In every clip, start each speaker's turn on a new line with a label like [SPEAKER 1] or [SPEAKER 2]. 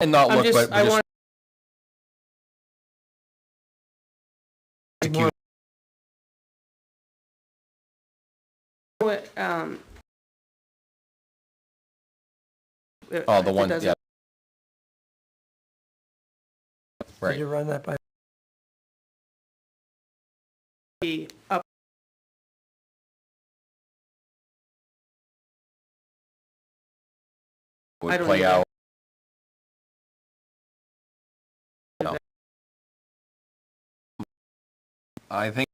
[SPEAKER 1] And not
[SPEAKER 2] I'm
[SPEAKER 1] look,
[SPEAKER 2] just,
[SPEAKER 1] but
[SPEAKER 2] I
[SPEAKER 1] we
[SPEAKER 2] want.
[SPEAKER 1] just
[SPEAKER 2] more- What, um.
[SPEAKER 1] oh,
[SPEAKER 2] if
[SPEAKER 1] the
[SPEAKER 2] it
[SPEAKER 1] one,
[SPEAKER 2] doesn't-
[SPEAKER 1] yeah.
[SPEAKER 3] Did
[SPEAKER 1] Right,
[SPEAKER 3] you run that by?
[SPEAKER 2] be up. I
[SPEAKER 1] would
[SPEAKER 2] don't
[SPEAKER 1] play
[SPEAKER 2] know.
[SPEAKER 1] out.
[SPEAKER 2] No.
[SPEAKER 1] I think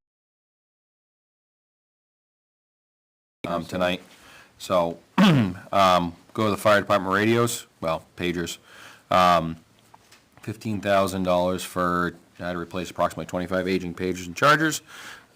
[SPEAKER 1] um, tonight, so, um, go to the fire department radios, well, pagers. Um, fifteen thousand dollars for, I had to replace approximately twenty-five aging pagers and chargers.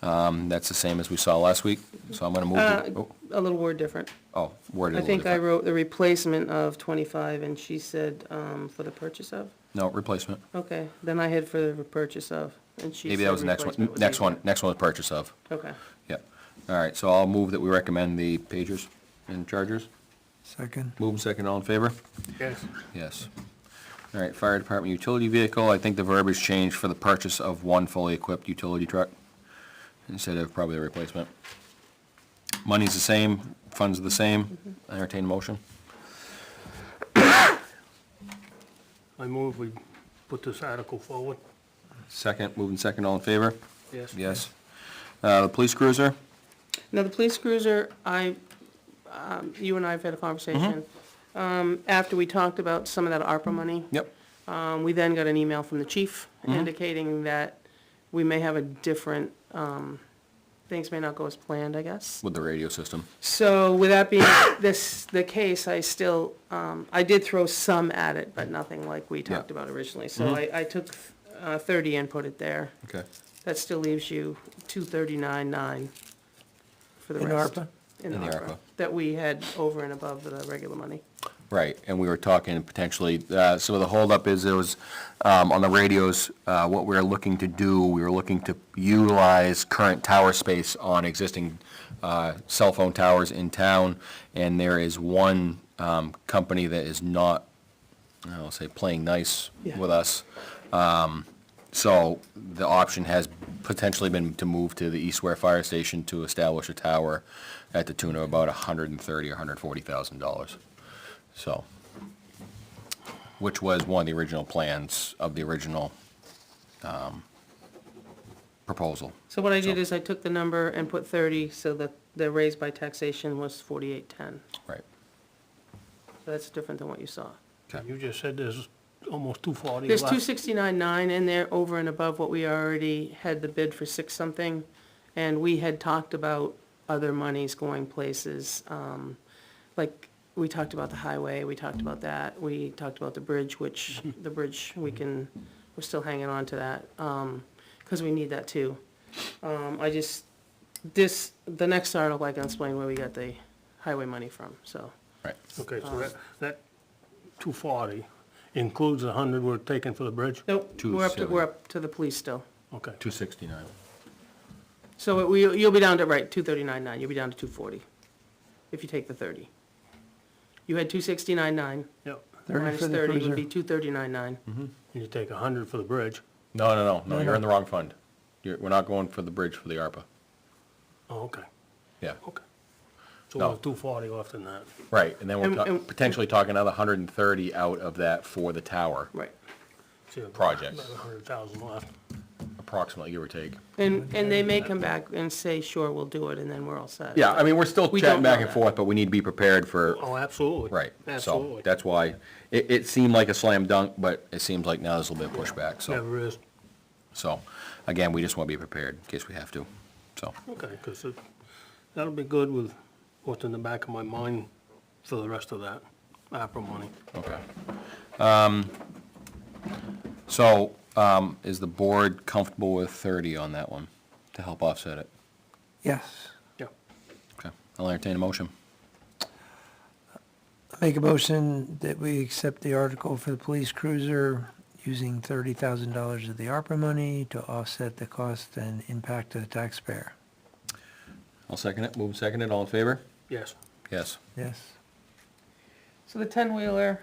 [SPEAKER 1] Um, that's the same as we saw last week, so I'm gonna move,
[SPEAKER 2] Uh,
[SPEAKER 1] to- oh,
[SPEAKER 2] A little word different.
[SPEAKER 1] oh, worded
[SPEAKER 2] I
[SPEAKER 1] a little
[SPEAKER 2] think I
[SPEAKER 1] different.
[SPEAKER 2] wrote the replacement of 25, and she said, um, for the purchase of?
[SPEAKER 1] No, replacement.
[SPEAKER 2] Okay, then I had for the purchase of, and she said.
[SPEAKER 1] Maybe that was the next one,
[SPEAKER 2] replacement was
[SPEAKER 1] next one,
[SPEAKER 2] easier.
[SPEAKER 1] next one was purchase of.
[SPEAKER 2] Okay.
[SPEAKER 1] Yep. All right, so I'll move that we recommend the pagers and chargers.
[SPEAKER 3] Second.
[SPEAKER 1] Move and second, all in favor?
[SPEAKER 4] Yes.
[SPEAKER 1] Yes. All right, fire department utility vehicle, I think the verbiage changed for the purchase of one fully equipped utility truck instead of probably a replacement. Money's the same, funds are the same.
[SPEAKER 4] Mm-hmm.
[SPEAKER 1] I Entertain a motion.
[SPEAKER 4] I move we put this article forward.
[SPEAKER 1] Second, move and second, all in favor?
[SPEAKER 4] Yes.
[SPEAKER 1] Yes. Uh, the police cruiser,
[SPEAKER 2] Now, the police cruiser, I, um, you and I have had a conversation. Um, After we talked about some of that ARPA money,
[SPEAKER 1] yep,
[SPEAKER 2] um, we then got an email from the chief indicating that we may have a different, um, things may not go as planned, I guess.
[SPEAKER 1] with the radio system.
[SPEAKER 2] So with that being this, the case, I still, um, I did throw some at it, but nothing like we talked
[SPEAKER 1] Yeah.
[SPEAKER 2] about originally. So I, I took, uh, thirty and put it there.
[SPEAKER 1] Okay.
[SPEAKER 2] That still leaves you two thirty-nine nine for the
[SPEAKER 3] In
[SPEAKER 2] rest.
[SPEAKER 3] ARPA?
[SPEAKER 2] In
[SPEAKER 1] In the
[SPEAKER 2] ARPA,
[SPEAKER 1] ARPA.
[SPEAKER 2] that we had over and above the regular money.
[SPEAKER 1] Right, and we were talking potentially, uh, so the holdup is, it was, um, on the radios, uh, what we were looking to do, we were looking to utilize current tower space on existing uh, cell phone towers in town, and there is one um, company that is not, I'll say, playing nice
[SPEAKER 2] Yeah.
[SPEAKER 1] with us. Um, So the option has potentially been to move to the East Ware Fire Station to establish a tower at the tune of about $130,000 or $140,000. So, which was one of the original plans of the original um, proposal.
[SPEAKER 2] So what I did is I took the number and put thirty, so that the raise by taxation was forty-eight ten.
[SPEAKER 1] Right.
[SPEAKER 2] So that's different than what you saw.
[SPEAKER 4] You just said there's almost two forty
[SPEAKER 2] There's
[SPEAKER 4] left.
[SPEAKER 2] two sixty-nine nine in there over and above what we already had the bid for six something. And we had talked about other monies going places, um, like, we talked about the highway, we talked about that, we talked about the bridge, which, the bridge, we can, we're still hanging on to that, um, cause we need that too. Um, I just, this, the next article, I can explain where we got the highway money from, so.
[SPEAKER 1] Right.
[SPEAKER 4] Okay,
[SPEAKER 2] Uh-huh.
[SPEAKER 4] so that, that two forty includes the hundred we're taking for the bridge?
[SPEAKER 2] Nope, we're up to,
[SPEAKER 1] 270.
[SPEAKER 2] we're up to the police still.
[SPEAKER 4] Okay.
[SPEAKER 1] 269.
[SPEAKER 2] So it- we- you'll be down to, right, 239.9, you'll be down to 240, if you take the 30. You had 269.9,
[SPEAKER 4] Yep.
[SPEAKER 3] Thirty
[SPEAKER 2] minus
[SPEAKER 3] for the
[SPEAKER 2] 30 would be
[SPEAKER 3] cruiser.
[SPEAKER 2] 239.9.
[SPEAKER 4] You take a hundred for the bridge.
[SPEAKER 1] No, no, no, no, you're in the wrong fund. You're, we're not going for the bridge for the ARPA.
[SPEAKER 4] Oh, okay,
[SPEAKER 1] Yeah,
[SPEAKER 2] Oh.
[SPEAKER 4] okay. So
[SPEAKER 1] No.
[SPEAKER 4] we'll have two forty left in that.
[SPEAKER 1] right, and then we're
[SPEAKER 2] And-
[SPEAKER 1] ta-
[SPEAKER 2] and-
[SPEAKER 1] potentially talking another 130 out of that for the tower,
[SPEAKER 2] Right.
[SPEAKER 4] See, about-
[SPEAKER 1] Project.
[SPEAKER 4] About a hundred thousand left.
[SPEAKER 1] approximately, give or take.
[SPEAKER 2] And, and they may come back and say, sure, we'll do it, and then we're all set.
[SPEAKER 1] Yeah, I mean, we're still
[SPEAKER 2] We
[SPEAKER 1] chatting
[SPEAKER 2] don't
[SPEAKER 1] back
[SPEAKER 2] know
[SPEAKER 1] and
[SPEAKER 2] that.
[SPEAKER 1] forth, but we need to be prepared for,
[SPEAKER 4] Oh, absolutely.
[SPEAKER 1] right. So
[SPEAKER 4] Absolutely.
[SPEAKER 1] that's why, it, it seemed like a slam dunk, but it seems like now there's a little bit of pushback, so.
[SPEAKER 4] Never is.
[SPEAKER 1] So, again, we just want to be prepared in case we have to, so.
[SPEAKER 4] Okay, because that'll be good with what's in the back of my mind for the rest of that ARPA money.
[SPEAKER 1] Okay. Um, So, um, is the board comfortable with 30 on that one to help offset it?
[SPEAKER 3] Yes.
[SPEAKER 4] Yeah.
[SPEAKER 1] Okay, I'll entertain a motion.
[SPEAKER 3] I Make a motion that we accept the article for the police cruiser using thirty thousand dollars of the ARPA money to offset the cost and impact to the taxpayer.
[SPEAKER 1] I'll second it, move and second it, all in favor?
[SPEAKER 4] Yes.
[SPEAKER 1] Yes.
[SPEAKER 3] Yes.
[SPEAKER 2] So the 10-wheeler,